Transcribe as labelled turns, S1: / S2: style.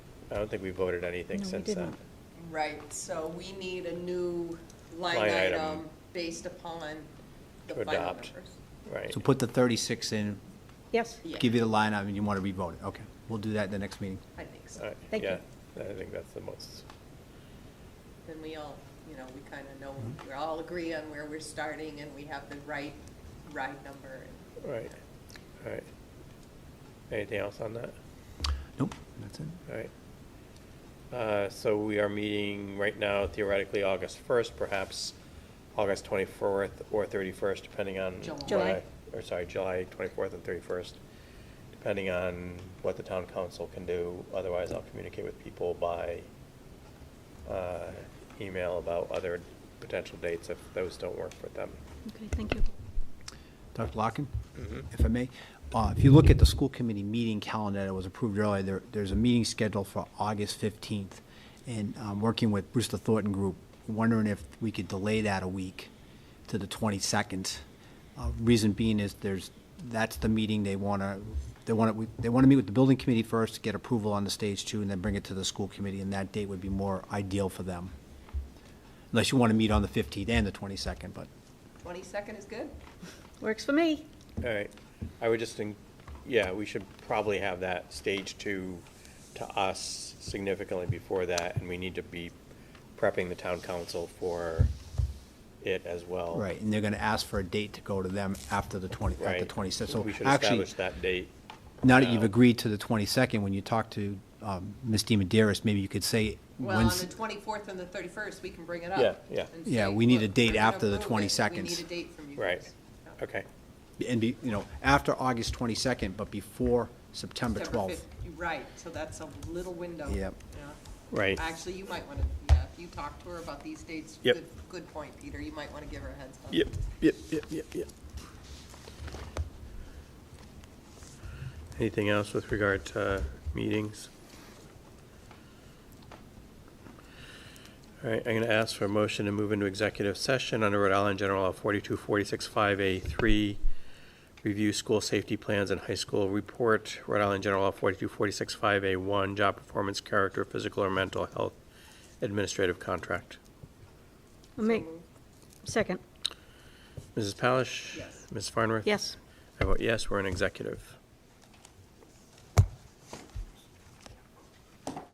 S1: I don't think we voted anything
S2: No, we
S1: since
S2: did
S1: then.
S2: not.
S3: Right, so we need a new line
S1: Line item.
S3: item based upon the
S1: To
S3: final numbers.
S1: adopt. Right.
S4: So put the 36 in,
S2: Yes,
S3: Yeah,
S4: give you the line item, you want to re-vote it. Okay, we'll do that in the next meeting.
S3: I think
S1: All
S3: so.
S1: right,
S2: Thank you.
S1: Yeah, I think that's the most,
S3: Then we all, you know, we kind of know,
S4: Mm-hmm.
S3: we all agree on where we're starting and we have the right ride number.
S1: right, all right. Anything else on that?
S4: Nope, that's it.
S1: All right. Uh, So we are meeting right now theoretically August 1st, perhaps August 24th or 31st, depending on.
S3: July.
S1: what
S2: July.
S1: I- Or sorry, July 24th and 31st, depending on what the town council can do. Otherwise, I'll communicate with people by uh, email about other potential dates if those don't work for them.
S2: okay, thank you.
S4: Dr. Locken, if I may, uh, if you look at the school committee meeting calendar that was approved earlier, there, there's a meeting scheduled for August fifteenth. And i working with Brewster Thornton Group, wondering if we could delay that a week to the twenty-second. Uh, reason being is there's, that's the meeting they wanna, they wanna, we- they wanna meet with the building committee first, get approval on the stage two, and then bring it to the school committee, and that date would be more ideal for them. Unless you wanna meet on the fifteenth and the twenty-second, but.
S3: Twenty-second is good?
S2: Works for me.
S1: All right, I would just think, yeah, we should probably have that stage two to us significantly before that, and we need to be prepping the town council for it as well.
S4: Right, and they're gonna ask for a date to go to them after the twenty, at the
S1: Right.
S4: twenty-sixth, so
S1: We should
S4: actually,
S1: establish that date. Um,
S4: now that you've
S1: now.
S4: agreed to the twenty-second, when you talk to, um, Ms. DiMederos, maybe you could say,
S3: Well, on
S4: when's,
S3: the twenty-fourth and the thirty-first, we can bring it up.
S1: Yeah, yeah.
S3: and
S4: Yeah,
S3: say,
S4: we need a
S3: "Look,
S4: date
S3: we're gonna
S4: after the
S3: approve it.
S4: 20
S3: We
S4: seconds."
S3: need a date from you
S1: Right.
S3: guys. Yeah.
S1: Okay,
S4: and be, you know, after August twenty-second, but before September
S3: September
S4: twelfth.
S3: fifth, right, so that's a little window.
S4: Yep.
S3: Yeah.
S1: right,
S3: Actually, you might want to, yeah, if you talk to her about these dates,
S1: Yep.
S3: good, good point, Peter, you might want to give her a heads up.
S1: yep, yep, yep, yep, yep. Anything else with regard to meetings? All right, I'm going to ask for a motion to move into executive session under Rhode Island General Law 42465A3, review school safety plans and high school report, Rhode Island General Law 42465A1, job performance, character, physical or mental health, administrative contract.
S2: I'll make, second,
S1: Mrs. Palish?
S3: Yes.
S1: Ms. Farnworth?
S2: yes.
S1: I vote yes, we're in executive.